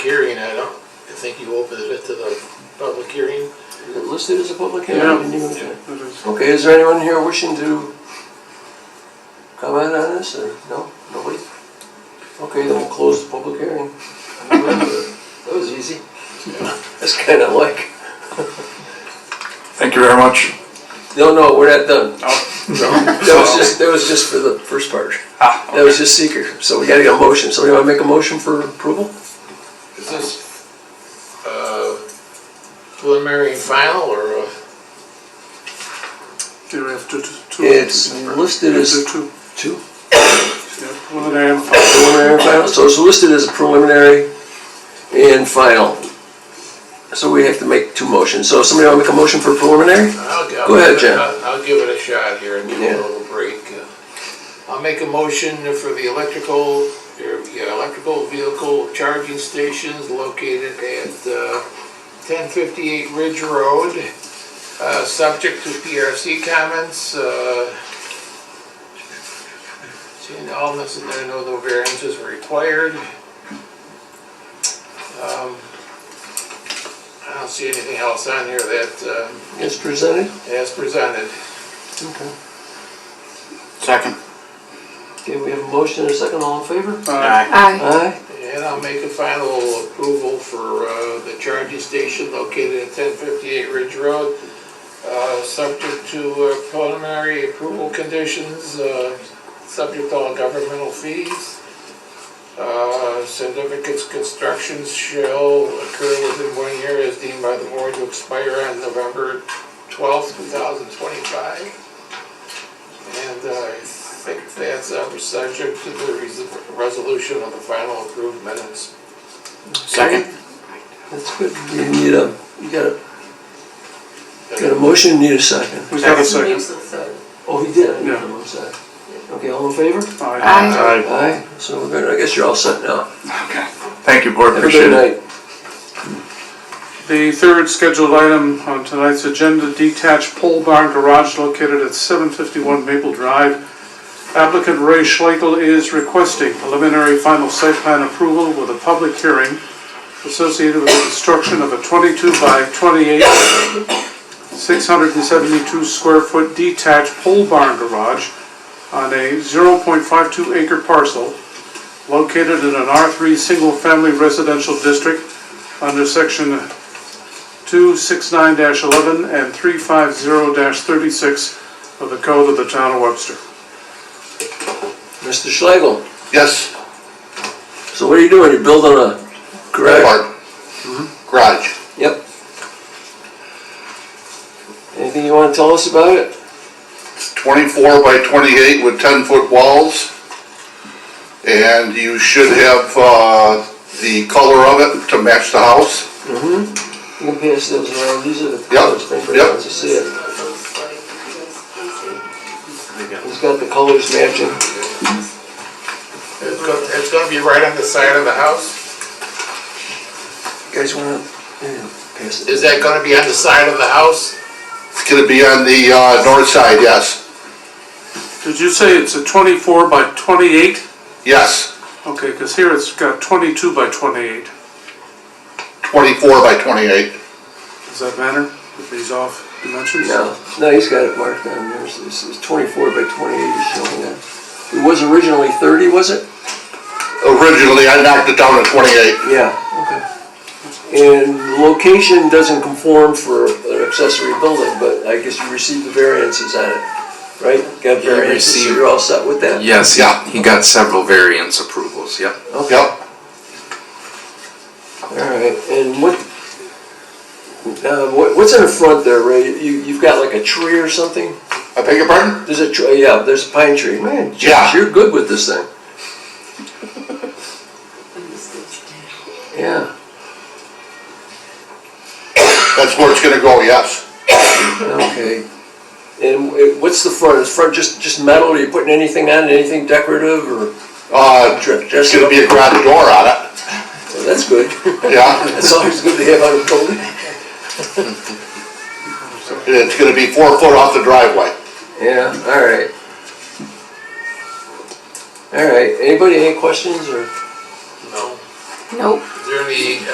hearing, I don't, I think you opened it to the public hearing. Is it listed as a public hearing? Yeah. Didn't even- Yeah. It is. Okay, is there anyone here wishing to comment on this, or, no, nobody? Okay, then we'll close the public hearing. That was easy. That's kinda like, Thank you very much. no, no, we're not done. Oh, That was just, that was just for the first part. That was just seeker, so we gotta get a motion, somebody wanna make a motion for approval? Is this, uh, preliminary and final, or, uh, You have to, to- to. It's listed You as have to Two, two, yeah, preliminary and final. preliminary and final, so it's listed as preliminary and final. So we have to make two motions, so somebody wanna make a motion for preliminary? I'll, I'll. Go ahead, give it- Jen. I'll- I'll give it a shot here and give it Yeah. a little break. Uh, I'll make a motion for the electrical, er, yeah, electrical vehicle charging stations located at, uh, ten fifty-eight Ridge Road, uh, subject to PRC comments, uh, seeing all necessary, no, no variances were required. Um, I don't see anything else on here that, uh, It's presented? as presented. Okay. Second. Okay, we have a motion and a second, all in favor? Uh, Aye. Aye. And I'll make a final approval for uh, the charging station located at 1058 Ridge Road, uh, subject to uh, preliminary approval conditions, uh, subject to all governmental fees. Uh, Significant construction shall occur within one year as deemed by the board to expire on November 12th, 2025. And uh, I think that's uh, subject to the res- resolution of the final approved minutes. Second. That's good. You need a, you got a, got a motion, you need a second. We got a second. Oh, he did. I Yeah. didn't know, I'm sorry. Okay, all in favor? Aye. Aye. So we're good, I guess you're all set now. Okay. Thank you, board, Have a appreciate good it. night. The third scheduled item on tonight's agenda, detached pole barn garage located at 751 Maple Drive. Applicant Ray Schlegel is requesting preliminary final site plan approval with a public hearing associated with the construction of a 22 by 28, 672 square foot detached pole barn garage on a 0.52 acre parcel located in an R3 single family residential district under section 269-11 and 350-36 of the Code of the Town of Webster. Mr. Schlegel, Yes, so what are you doing? You're building a garage? park. Garage. Yep. Anything you wanna tell us about it? It's 24 by 28 with 10-foot walls. And you should have uh, the color of it to match the house. You can pass those around, these are the Yep, colors, thing for yep. everyone to see it. He's got the colors matching. It's go- It's gonna be right on the side of the house? You guys wanna, yeah, pass it? Is that gonna be on the side of the house? It's gonna be on the uh, north side, yes. Did you say it's a 24 by 28? Yes, Okay, because here it's got 22 by 28. 24 by 28. Does that matter if these off dimensions? No, no, he's got it marked down there, so this is twenty-four by twenty-eight, he's showing that. It was originally thirty, was it? Originally, I knocked it down to 28. Yeah. Okay. And the location doesn't conform for an accessory building, but I guess you received the variances on it, right? Got variances, so received- you're all set with that? Yes, Yeah. he got several variance approvals, yep. Okay. Yep, All right, and what, uh, what, what's in the front there, Ray? You, you've got like a tree or something? I beg your pardon? There's a tree, yeah, there's a pine tree. Man, Josh, Yeah. you're good with this thing. Yeah, That's where it's gonna go, yes. okay. And it- what's the front? Is front just, just metal? Are you putting anything on it, anything decorative or? Uh, Dr- There's dress it gonna up? be a garage door on it, Well, Oh, That's good. yeah. That's always good to have on a building. It's gonna be four foot off the driveway. Yeah, all right. All right, anybody, any questions or? No. Nope. Is there any